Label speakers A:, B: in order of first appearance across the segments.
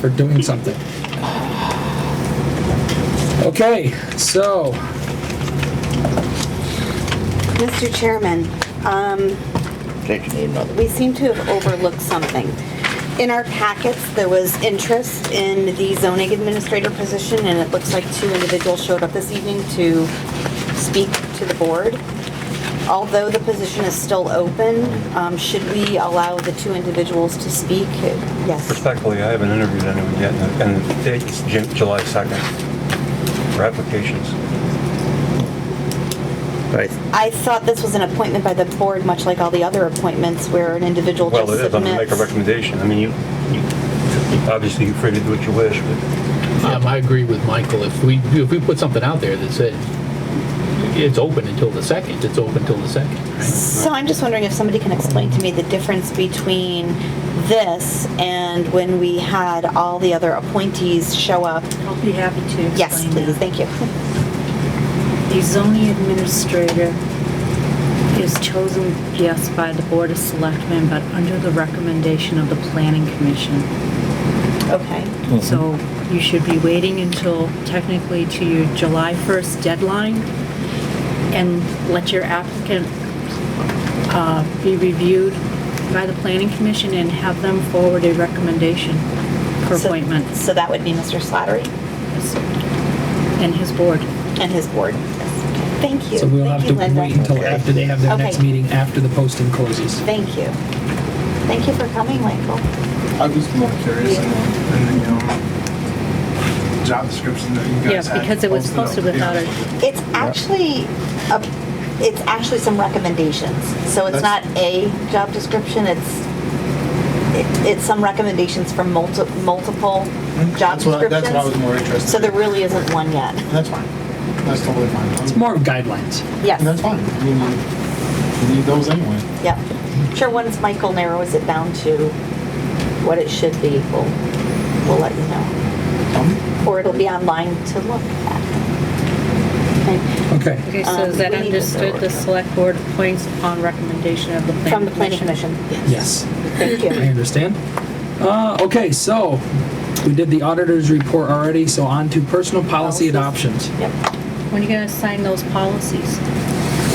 A: for doing something. Okay, so,
B: Mr. Chairman, um,
C: Thank you.
B: we seem to have overlooked something. In our packets, there was interest in the zoning administrator position, and it looks like two individuals showed up this evening to speak to the board. Although the position is still open, um, should we allow the two individuals to speak? Yes.
D: Respectfully, I haven't interviewed anyone yet, and the date is Ju- July 2nd for applications.
C: Right.
B: I thought this was an appointment by the board, much like all the other appointments where an individual just
D: Well, it
B: submits.
D: is, I'm gonna make a recommendation. I mean, you, you- obviously, you're free to do what you wish, but
E: Um, I agree with Michael. If we, if we put something out there that said, it's open until the second, it's open until the second.
B: So I'm just wondering if somebody can explain to me the difference between this and when we had all the other appointees show up.
F: I'll be happy to explain
B: Yes, please,
F: that.
B: thank you.
F: The zoning administrator is chosen, yes, by the Board of Selectmen, but under the recommendation of the Planning Commission.
B: Okay,
F: So you should be waiting until technically to your July 1st deadline and let your applicant uh, be reviewed by the Planning Commission and have them forward a recommendation for
B: So-
F: appointments
B: so that would be Mr. Slattery
F: and his board.
B: and his board. Yes, okay. Thank you.
A: so we'll
B: Thank
A: have
B: you,
A: to
B: Linda.
A: wait until after they have their next
B: Okay.
A: meeting, after the posting closes.
B: Thank you. Thank you for coming, Michael.
G: I'm just more curious and, and, you know, job description that you guys
F: Yeah,
G: had
F: because it was posted
G: up.
F: without
G: Yeah.
F: a,
B: It's actually, a- it's actually some recommendations. So it's not
G: That's-
B: a job description, it's, it- it's some recommendations from multi- multiple job
G: Mm-hmm. That's what, I-
B: descriptions.
G: that's what I was more interested.
B: So there
G: in.
B: really isn't one yet.
G: That's fine. That's totally fine.
A: It's more of guidelines.
B: Yes.
G: And that's fine. I mean, you, you need those anyway.
B: Yep. Sure, once Michael narrows it down to what it should be, we'll, we'll let you know.
G: Um,
B: Or it'll be online to look at. Okay.
A: Okay,
F: okay, so is
B: Um,
F: that
B: we need to
F: understood? The
B: forward.
F: select board appoints upon recommendation of the planning commission?
B: From the planning commission.
A: yes,
B: Thank you.
A: I understand. Uh, okay, so, we did the auditor's report already, so on to personal policy
B: Policies.
A: adoptions.
B: Yep.
F: When are you gonna sign those policies?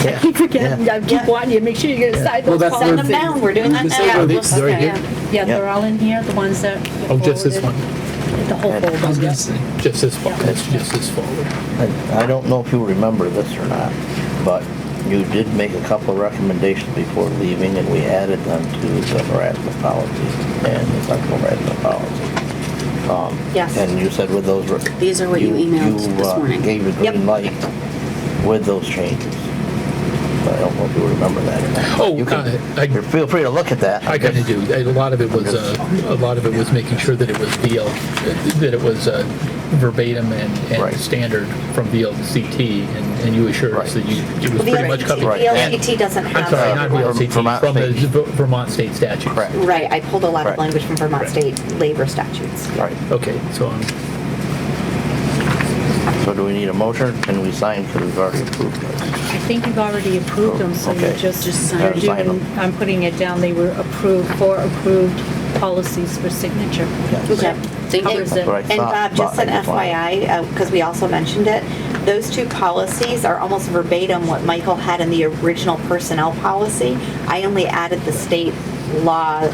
C: Yeah.
F: I
B: Yeah.
F: wanting you to make sure you're gonna sign
A: Well, that's
B: Send
A: their-
B: them down, we're doing that
A: They say they're-
B: now.
A: they're-
F: Yeah, they're all in here, the ones that. you
E: Oh, just this one,
F: forwarded. The whole
A: I was
F: folder.
A: gonna
F: yeah.
A: say,
E: just this one,
F: Yeah.
E: just this folder.
C: I I don't know if you remember this or not, but you did make a couple of recommendations before leaving, and we added them to the harassment policy and the sexual harassment policy. Um,
B: Yes.
C: And you said with those... re-
H: These are what you emailed this
C: uh,
H: morning.
C: gave a
B: Yep.
C: green light with those changes. But I don't know if you remember that or not.
E: Oh,
C: You can-
E: uh, I-
C: you Feel free to look at that.
E: I kind of do. A lot of it was, uh, a lot of it was making sure that it was VL, that it was uh, verbatim and,
C: Right.
E: and standard from VLCT, and and you assured us that
C: Right.
E: you, it was
B: The
E: pretty much covered.
C: Right.
B: LCT doesn't
E: I'm
B: have.
E: sorry,
B: that
E: not
B: one.
E: VLCT,
C: Vermont
E: from the
C: state.
E: V- Vermont state statutes.
C: Correct.
B: Right, I pulled a lot of
C: Right.
B: language from Vermont
E: Right.
B: state labor statutes.
C: Right.
E: Okay, so I'm,
C: So do we need a motion? Can we sign, because we've already approved this?
F: I think you've already approved them, so you
C: Okay.
F: just, just
C: Just sign
F: are
C: them. Sign them.
F: doing, I'm putting it down, they were approved, four approved policies for signature.
C: Yes.
B: Yep.
H: Thank you.
F: Covers it.
C: Right.
B: And
C: thought,
B: Bob, just
C: but
B: an
C: I just wanted-
B: FYI, because uh, we also mentioned it, those two policies are almost verbatim what Michael had in the original personnel policy. I only added the state law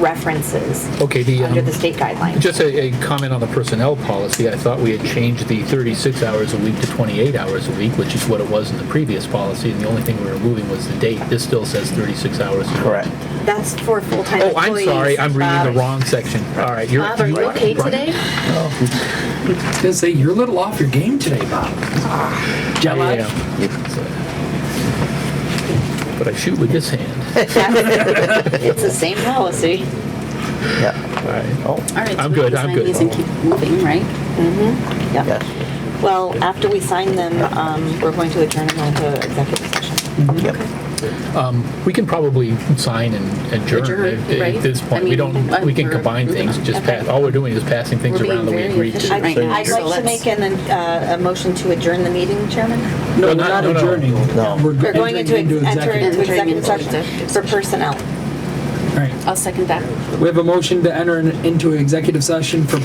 B: references
E: okay, the.
B: under
E: um,
B: the state guidelines.
E: Just a, a comment on the personnel policy. I thought we had changed the 36 hours a week to 28 hours a week, which is what it was in the previous policy, and the only thing we were moving was the date. This still says 36 hours.
C: Correct.
B: That's for full-time
E: Oh,
B: employees. Uh,
E: I'm sorry, I'm reading
B: Bob.
E: the wrong section. All right, you're.
H: Bob, are you okay today?
A: I was gonna say, you're a little off your game today, Bob. Jet
E: I
A: lag?
E: am. But I shoot with this hand.
B: It's the same policy.
C: Yeah.
E: All right.
C: Oh,
H: All right, so
E: I'm
H: we
E: good,
H: can
E: I'm
H: sign
E: good.
H: these and keep moving, right?
B: Yep.
C: yes.
B: Well, after we sign them, um, we're going to adjourn them into executive session.
C: Yep.
E: We can probably sign and adjourn
H: Adjourn,
E: at- at
H: right?
E: this
H: I
E: point. We
H: mean,
E: don't,
H: uh,
E: we can
H: we're-
E: combine things, just pass, all we're doing is passing things
H: We're being
E: around that we
H: very
E: agreed to.
H: efficient.
B: I'd
H: Right now,
B: I'd
H: so
B: like to
H: let's-
B: make an, uh, a motion to adjourn the meeting, Chairman.
A: No,
E: No,
A: we're
E: not-
A: not
E: no, no.
A: adjourning.
C: No.
B: We're going into,
A: entering
B: enter
A: executive.
B: into executive
H: Entering into
B: session
H: executive
B: for personnel.
A: All right.
H: I'll second that.
A: We have a motion to enter in- into executive session for